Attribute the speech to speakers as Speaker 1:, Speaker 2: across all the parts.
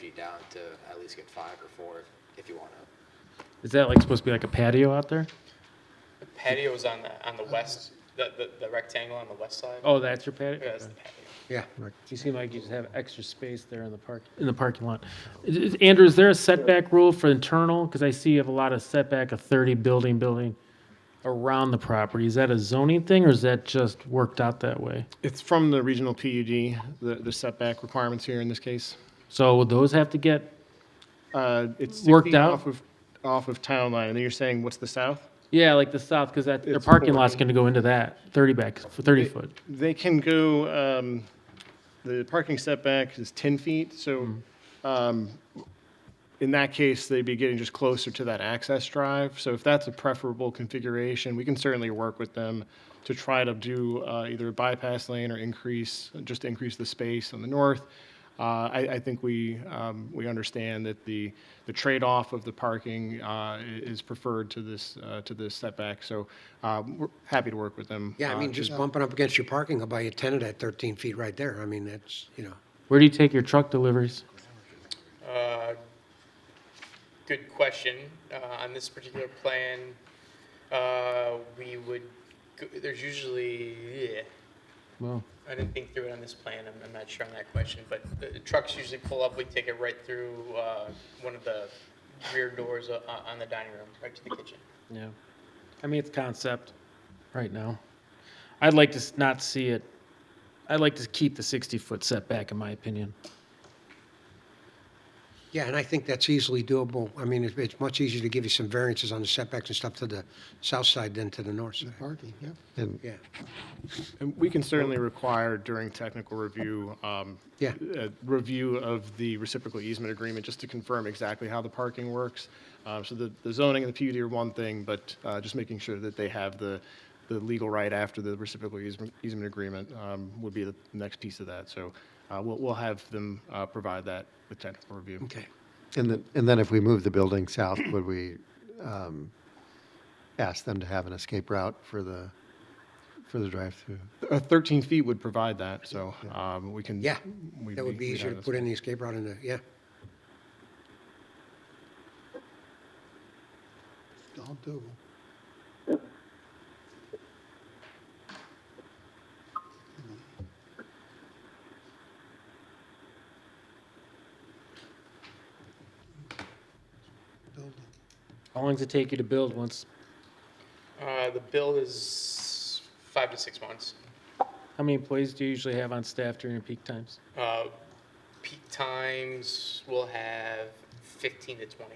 Speaker 1: be down to at least get five or four if you want to.
Speaker 2: Is that like supposed to be like a patio out there?
Speaker 3: The patio is on the, on the west, the, the, the rectangle on the west side.
Speaker 2: Oh, that's your patio?
Speaker 3: Yeah, that's
Speaker 2: Okay.
Speaker 3: the patio.
Speaker 4: Yeah.
Speaker 2: You seem like you just have extra space there in the park, in the parking lot. Is- is- Andrew, is there a setback rule for internal? Because I see you have a lot of setback of thirty building, building around the property. Is that a zoning thing or is that just worked out that way?
Speaker 5: It's from the regional PUD, the, the setback requirements here in this case.
Speaker 2: So would those have to get,
Speaker 5: Uh, It's 60
Speaker 2: Worked out?
Speaker 5: Off of, off of town line, and then you're saying, what's the south?
Speaker 2: yeah, like the south, because that, their
Speaker 5: It's
Speaker 2: parking lot's
Speaker 5: 40.
Speaker 2: gonna go into that, thirty back, thirty foot.
Speaker 5: They can go, um, the parking setback is 10 feet, so
Speaker 4: Mm-hmm.
Speaker 5: um, in that case, they'd be getting just closer to that access drive. So if that's a preferable configuration, we can certainly work with them to try to do uh, either a bypass lane or increase, just increase the space on the north. Uh, I, I think we, um, we understand that the, the trade-off of the parking uh, i- is preferred to this, uh, to this setback. So um, we're happy to work with them.
Speaker 4: Yeah, I
Speaker 5: uh,
Speaker 4: mean,
Speaker 5: to
Speaker 4: just bumping up against your parking, I'll buy you a tenant at 13 feet right there. I mean, that's, you know,
Speaker 2: Where do you take your truck deliveries?
Speaker 3: Uh, Good question. Uh, On this particular plan, uh, we would, go- there's usually, yeah,
Speaker 2: Well,
Speaker 3: I didn't think through it on this plan. I'm, I'm not sure on that question, but the trucks usually pull up. We take it right through uh, one of the rear doors o- o- on the dining room, right to the kitchen.
Speaker 2: Yeah. I mean, it's concept right now. I'd like to s- not see it, I'd like to keep the 60-foot setback, in my opinion.
Speaker 4: yeah, and I think that's easily doable. I mean, it's, it's much easier to give you some variances on the setbacks and stuff to the south side than to the north side. Parking, yeah. Yeah,
Speaker 5: And we can certainly require during technical review, um,
Speaker 4: Yeah.
Speaker 5: a review of the reciprocal easement agreement, just to confirm exactly how the parking works. Uh, So the the zoning and the PUD are one thing, but uh, just making sure that they have the, the legal right after the reciprocal easement, easement agreement um, would be the next piece of that. So uh, we'll, we'll have them uh, provide that with technical review.
Speaker 4: okay.
Speaker 6: And then, and then if we move the building south, would we um, ask them to have an escape route for the, for the drive-through?
Speaker 5: Uh, 13 feet would provide that, so um, we can.
Speaker 4: Yeah,
Speaker 5: we'd
Speaker 4: that would be
Speaker 5: we'd have
Speaker 4: easier to
Speaker 5: this.
Speaker 4: put in the escape route in the, yeah. All doable.
Speaker 2: How long does it take you to build once,
Speaker 3: Uh, the bill is five to six months.
Speaker 2: how many employees do you usually have on staff during your peak times?
Speaker 3: Uh, peak times will have 15 to 20.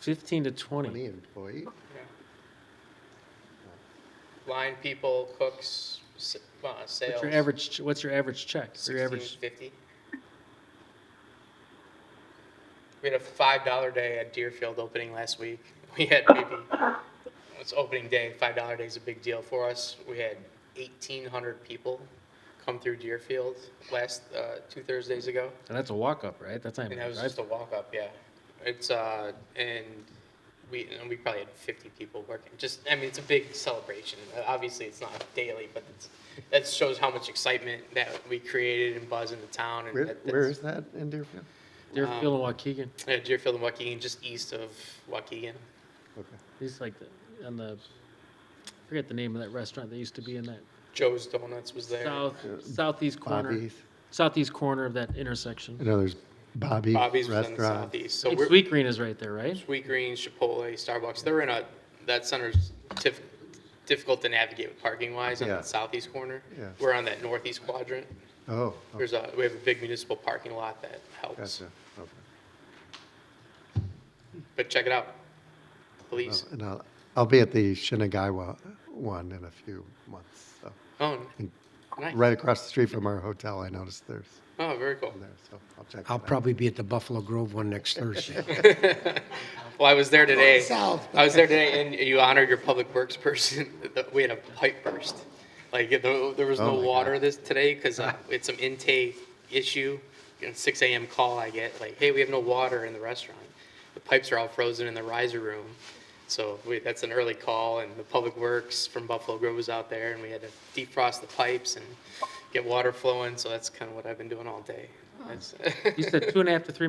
Speaker 2: 15 to 20.
Speaker 6: employee?
Speaker 3: Line people, cooks, s- uh, sales.
Speaker 2: What's your average, ch- what's your average check? Your
Speaker 3: 16
Speaker 2: average,
Speaker 3: fifty. We had a five dollar day at Deerfield opening last week. We had maybe it's opening day. Five dollar day is a big deal for us. We had eighteen hundred people come through Deerfield last uh, two Thursdays ago,
Speaker 2: and that's a walk-up, right? That's not
Speaker 3: and
Speaker 2: even
Speaker 3: that
Speaker 2: a
Speaker 3: was just
Speaker 2: drive.
Speaker 3: a walk up. Yeah, it's uh, and we and we probably had fifty people working. Just I mean, it's a big celebration. Uh, Obviously, it's not daily, but it's, that shows how much excitement that we created and buzz in the town. And
Speaker 6: Where,
Speaker 3: that- that's-
Speaker 6: where is that in Deerfield?
Speaker 2: Deerfield and Waukegan,
Speaker 3: Yeah, Deerfield and Waukegan, just east of Waukegan.
Speaker 2: it's like, the- on the, I forget the name of that restaurant that used to be in that
Speaker 3: Joe's Donuts was there.
Speaker 2: south, southeast corner,
Speaker 6: Bobby's?
Speaker 2: southeast corner of that intersection.
Speaker 6: I know there's Bobby's
Speaker 3: Bobby's was in the
Speaker 6: Restaurant.
Speaker 3: southeast. So we're
Speaker 2: Sweet Green is right there, right?
Speaker 3: Sweet Green, Chipotle, Starbucks. They're in a that center's tif- difficult to navigate parking wise on
Speaker 6: Yeah.
Speaker 3: the southeast corner.
Speaker 6: Yeah.
Speaker 3: We're on that northeast quadrant.
Speaker 6: Oh, oh,
Speaker 3: There's a we have a big municipal parking lot that helps.
Speaker 6: gotcha. Okay.
Speaker 3: But check it out, please.
Speaker 6: And I'll, I'll be at the Shinagawa one in a few months, so.
Speaker 3: Oh,
Speaker 6: And
Speaker 3: nice.
Speaker 6: Right across the street from our hotel, I noticed there's,
Speaker 3: Oh, very cool.
Speaker 6: there, so I'll check that
Speaker 4: I'll
Speaker 6: out.
Speaker 4: probably be at the Buffalo Grove one next Thursday.
Speaker 3: Well, I was there today.
Speaker 4: South.
Speaker 3: I was there today, and you honored your public works person. We had a pipe burst. Like, there there was no
Speaker 6: Oh my
Speaker 3: water this today because it's some intake issue. And 6 a.m. call I get, like, hey, we have no water in the restaurant. The pipes are all frozen in the riser room. So we, that's an early call, and the public works from Buffalo Grove was out there, and we had to defrost the pipes and get water flowing. So that's kind of what I've been doing all day. That's-
Speaker 2: You said two and a half to three